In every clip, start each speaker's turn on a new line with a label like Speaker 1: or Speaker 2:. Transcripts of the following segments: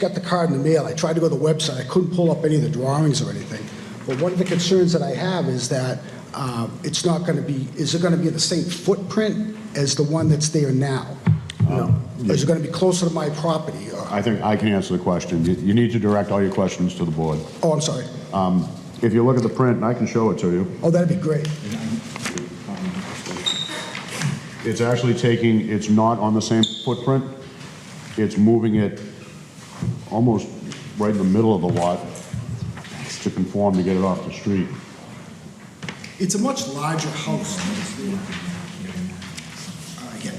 Speaker 1: got the card in the mail, I tried to go to the website, I couldn't pull up any of the drawings or anything. But one of the concerns that I have is that um, it's not going to be, is it going to be the same footprint as the one that's there now? No. Is it going to be closer to my property? or-
Speaker 2: I think I can answer the question. You- You need to direct all your questions to the board.
Speaker 1: Oh, I'm sorry.
Speaker 2: Um, If you look at the print, and I can show it to you,
Speaker 1: Oh, that'd be great.
Speaker 2: it's actually taking, it's not on the same footprint. It's moving it almost right in the middle of the lot to conform to get it off the street.
Speaker 1: It's a much larger house. Uh, yeah.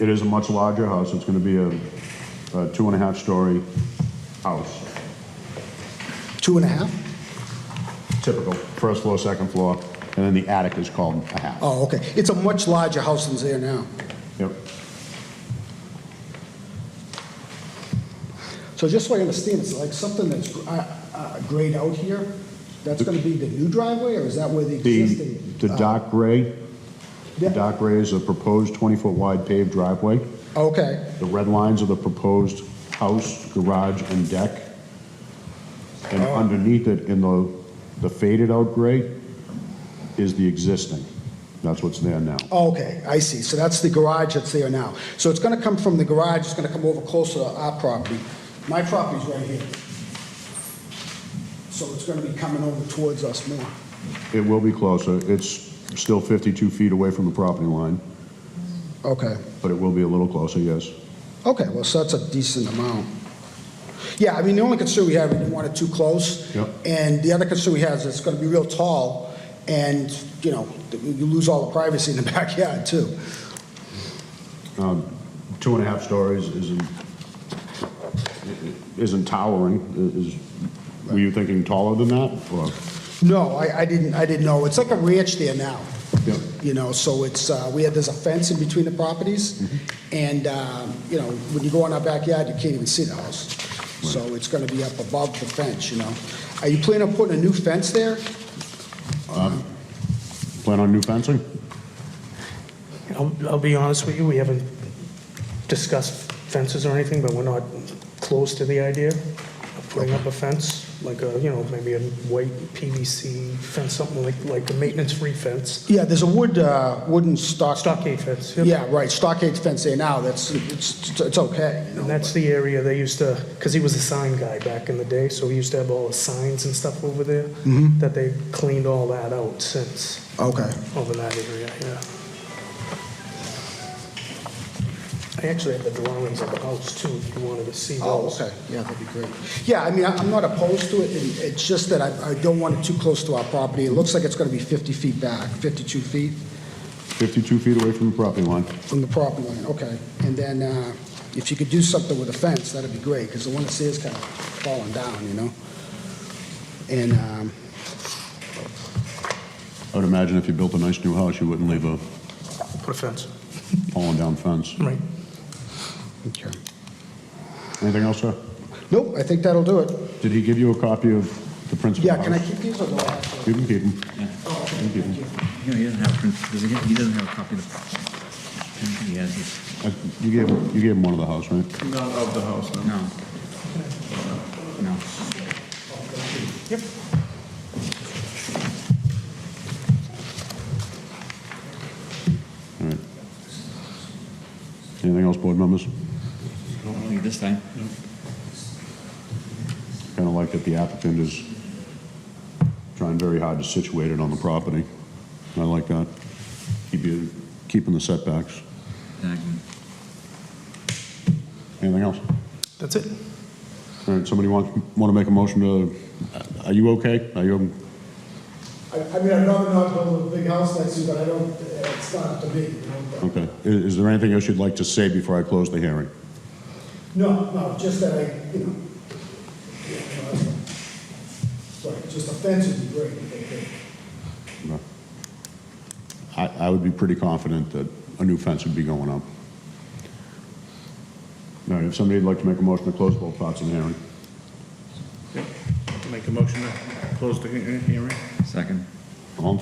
Speaker 2: It is a much larger house. It's going to be a a two and a half story house,
Speaker 1: Two and a half?
Speaker 2: typical, first floor, second floor, and then the attic is called a half.
Speaker 1: Oh, okay. It's a much larger house than's there now.
Speaker 2: Yep.
Speaker 1: So just so I understand, it's like something that's gr- uh, uh, grayed out here, that's going to be the new driveway, or is that where the
Speaker 2: The
Speaker 1: existing?
Speaker 2: the
Speaker 1: uh,
Speaker 2: dark gray The
Speaker 1: yeah.
Speaker 2: dock gray is a proposed 20-foot wide paved driveway.
Speaker 1: Oh, Okay,
Speaker 2: The red lines are the proposed house, garage, and deck. And
Speaker 1: Oh.
Speaker 2: underneath it, in the the faded-out gray, is the existing. That's what's there now.
Speaker 1: oh, okay, I see. So that's the garage that's there now. So it's going to come from the garage, it's going to come over closer to our property. My property's right here. So it's going to be coming over towards us more.
Speaker 2: It will be closer. It's still 52 feet away from the property line,
Speaker 1: Okay,
Speaker 2: but it will be a little closer, yes.
Speaker 1: okay, well, so that's a decent amount. Yeah, I mean, the only concern we have, we didn't want it too close.
Speaker 2: Yep.
Speaker 1: And the other concern we have is it's going to be real tall, and, you know, you lose all the privacy in the backyard, too.
Speaker 2: Two and a half stories isn't isn't towering. Is Were you thinking taller than that? or-
Speaker 1: No, I, I didn't, I didn't know. It's like a ranch there now.
Speaker 2: Yeah.
Speaker 1: You know, so it's, uh, we had, there's a fence in between the properties, and, um, you know, when you go in our backyard, you can't even see the house. So it's gonna be up above the fence, you know. Are you planning on putting a new fence there?
Speaker 2: Plan on new fencing?
Speaker 3: I'll, I'll be honest with you, we haven't discussed fences or anything, but we're not close to the idea of putting up a fence, like a, you know, maybe a white PVC fence, something like, like a maintenance-free fence,
Speaker 1: Yeah, there's a wood, uh, wooden stock.
Speaker 3: stockade fence. yep.
Speaker 1: Yeah, right, stockade fence there now, that's, it's, it's okay, you know.
Speaker 3: And that's the area they used to, because he was a sign guy back in the day, so he used to have all the signs and stuff over there, that they cleaned all that out since,
Speaker 1: Okay.
Speaker 3: over that area, yeah. I actually have the drawings of the house too, if you wanted to see
Speaker 1: Oh,
Speaker 3: those.
Speaker 1: okay, yeah, that'd be great. Yeah, I mean, I- I'm not opposed to it, and it's just that I I don't want it too close to our property. It looks like it's going to be 50 feet back, 52 feet
Speaker 2: 52 feet away from the property line.
Speaker 1: from the property line, okay. And then uh, if you could do something with a fence, that'd be great, because the one that's there is kind of falling down, you know? And, um,
Speaker 2: I would imagine if you built a nice new house, you wouldn't leave a
Speaker 3: Put a fence.
Speaker 2: fallen-down fence.
Speaker 3: Right.
Speaker 1: okay.
Speaker 2: Anything else, sir?
Speaker 1: Nope, I think that'll do it.
Speaker 2: Did he give you a copy of the principal
Speaker 1: Yeah,
Speaker 2: house?
Speaker 1: can I keep these or do I have to?
Speaker 2: You can keep them. You can keep 'em.
Speaker 4: No, he doesn't have, print- does he, he doesn't have a copy of the, I don't think he has this.
Speaker 2: Uh, You gave, him- you gave him one of the house, right?
Speaker 5: Not of the house, no.
Speaker 4: No. No.
Speaker 2: Anything else, board members?
Speaker 4: Don't leave this time.
Speaker 2: Kind of like that the applicant is trying very hard to situate it on the property. I like that. Keep you, keeping the setbacks.
Speaker 4: Exactly.
Speaker 2: Anything else?
Speaker 3: That's it.
Speaker 2: All right, somebody want, want to make a motion to, are you okay? Are you,
Speaker 6: I, I mean, I'd rather not build a big house next to you, but I don't, it's not up to me, you know? but-
Speaker 2: okay. Is is there anything else you'd like to say before I close the hearing?
Speaker 6: No, no, just that I, you know, yeah, no, that's fine. Right, just a fence would be great, I think.
Speaker 2: No. I, I would be pretty confident that a new fence would be going up. All right, if somebody'd like to make a motion to close both parts of the hearing.
Speaker 5: Make a motion to close the he- hearing?
Speaker 4: Second.